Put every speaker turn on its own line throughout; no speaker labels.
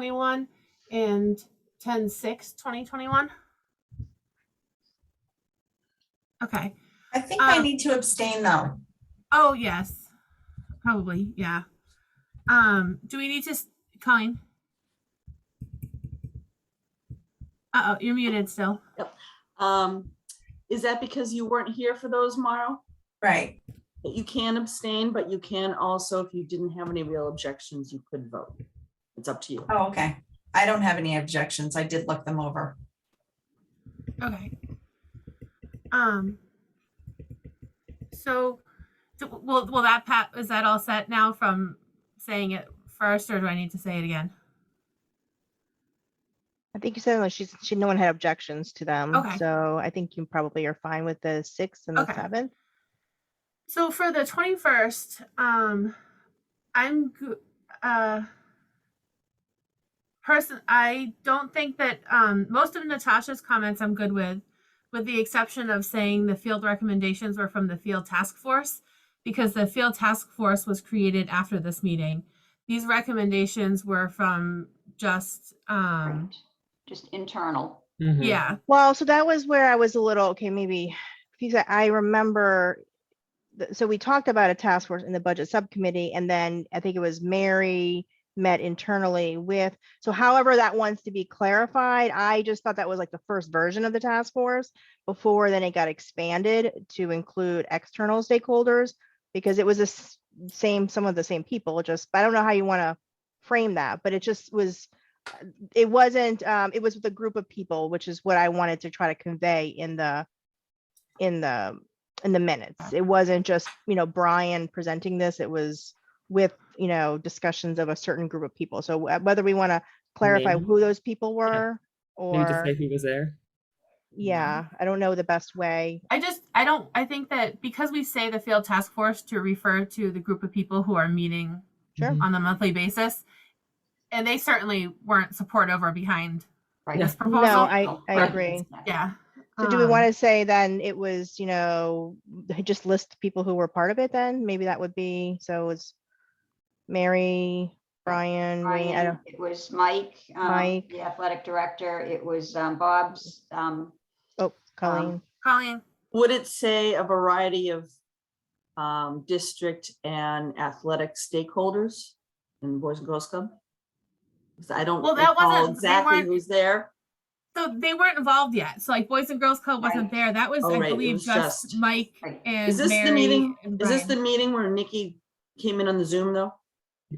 2021 and 10 6 2021 okay
I think I
Um,
need to abstain though.
oh yes probably yeah um do we need to s- colleen uh-oh you're muted still
Um, is that because you weren't here for those, Mauro?
Right.
That you can abstain, but you can also, if you didn't have any real objections, you could vote. It's up to you.
Oh, okay. I don't have any objections. I did look them over.
okay um so do, will, will that pat is that all set now from saying it first or do i need to say it again
I think you said like she's she no one had objections to them.
Okay.
So I think you probably are fine with the sixth and the
Okay.
seventh.
So for the 21st, um I'm go- uh person I don't think that um most of Natasha's comments I'm good with with the exception of saying the field recommendations were from the field task force because the field task force was created after this meeting. These recommendations were from just um
Just internal.
yeah.
Well, so that was where I was a little okay, maybe because I I remember th- so we talked about a task force in the budget subcommittee, and then I think it was Mary met internally with so however that wants to be clarified i just thought that was like the first version of the task force before then it got expanded to include external stakeholders because it was the s- same some of the same people just i don't know how you want to frame that but it just was it wasn't um it was with a group of people which is what i wanted to try to convey in the in the in the minutes it wasn't just you know brian presenting this it was with you know discussions of a certain group of people so wh- whether we want to clarify
Name.
who those people were
Maybe just
or
say who was there.
yeah i don't know the best way
I just I don't I think that because we say the field task force to refer to the group of people who are meeting
Sure.
Mhm.
on a monthly basis. And they certainly weren't supportive or behind
right?
this proposal.
No, I-
Oh,
I
right.
agree.
yeah.
so do we want
Um,
to say then it was you know just list the people who were part of it then maybe that would be so it's mary brian, Wayne, I
Ryan,
don't,
It was Mike. um,
Mike.
The athletic director. It was um, Bob's. um,
oh colleen
Colleen?
Would it say a variety of um, district and athletic stakeholders in Boys and Girls Club? 'Cause I don't
Well, that
recall
wasn't- they
exactly
weren't-
who's there.
So they weren't involved yet. So like Boys and Girls Club wasn't
Right.
there. That was,
Oh,
I
right, it
believe,
was
just,
just-
Mike
Right.
and
Is this
Mary
the meeting?
and
Is this the
Brian.
meeting where Nikki came in on the Zoom though?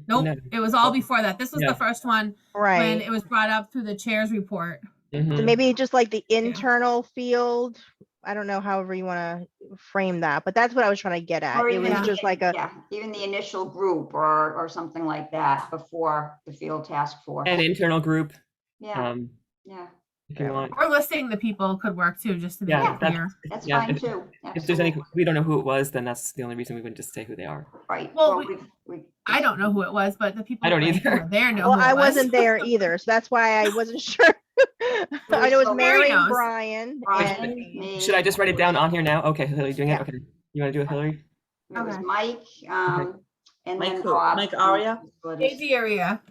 Nope.
No.
It was all before that. This was
Yeah.
the first one when
right
it was brought up through the chair's report.
So
Hmm.
Mhm.
maybe just like the internal field, I don't know, however you want to frame that, but that's what I was trying to get at.
or
It was
even-
just like a,
Yeah, even the initial group or, or something like that before the field task force.
An internal group,
Yeah,
um,
yeah,
if you
Yeah.
want.
Or listing the people could work too, just to be
Yeah, that's-
clear.
that's
yeah,
fine
if-
too.
If there's any,
absolutely.
we don't know who it was, then that's the only reason we wouldn't just say who they are.
Right.
Well, we-
we've- we've
I don't know who it was, but the people
don't
like, who
either.
were there know
well,
who it
I
was.
wasn't there either, so that's why I wasn't sure. I
was
know it was
so-
Mary
Mary,
knows.
and Brian,
Brian,
and
me,
Should I just write it down on here now? Okay, Hillary doing it?
Yeah.
Okay. You want to do it, Hillary?
It was
Okay.
Mike, um, and
Mike
then
who?
Bob.
Mike
from
Aria?
Facilities.
AD area.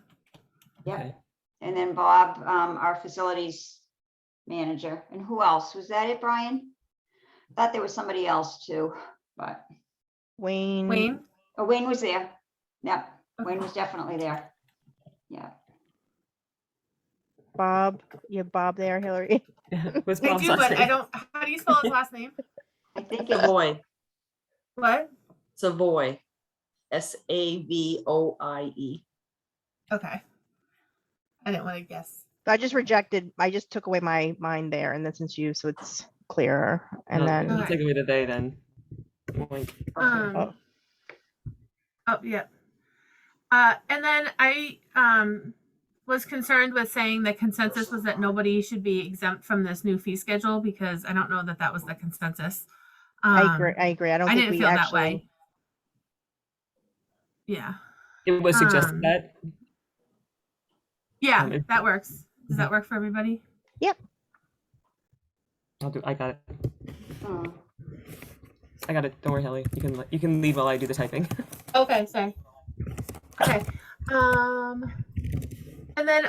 Yep.
Okay.
And then Bob, um, our facilities manager. And who else? Was that it, Brian? Thought there was somebody else too, but,
Wayne.
Wayne?
oh, Wayne was there. Yep, Wayne
Okay.
was definitely there. Yeah,
Bob, you have Bob there, Hillary.
Was
They
Bob's
do,
last
but I
name?
don't, how do you spell his last name?
I think it's,
Savoy,
What?
Savoy, S A V O I E.
Okay. I didn't want to guess.
I just rejected, I just took away my mind there, and then since you, so it's clearer. And
Oh,
No,
then,
we'll Take away the they then. Like,
perfect.
Um, oh, yeah. Uh, and then I um, was concerned with saying the consensus was that nobody should be exempt from this new fee schedule because I don't know that that was the consensus. Um,
I agree, I agree, I don't
I
think
didn't
we
feel that
actually.
way. Yeah.
It was
Um,
suggested that.
Yeah,
Um, if-
that works. Does that work for everybody?
I'll do, I got it.
Hmm.
I got it. Don't worry, Hillary. You can, le- you can leave while I do the typing.
Okay, sorry. Okay. Um, And then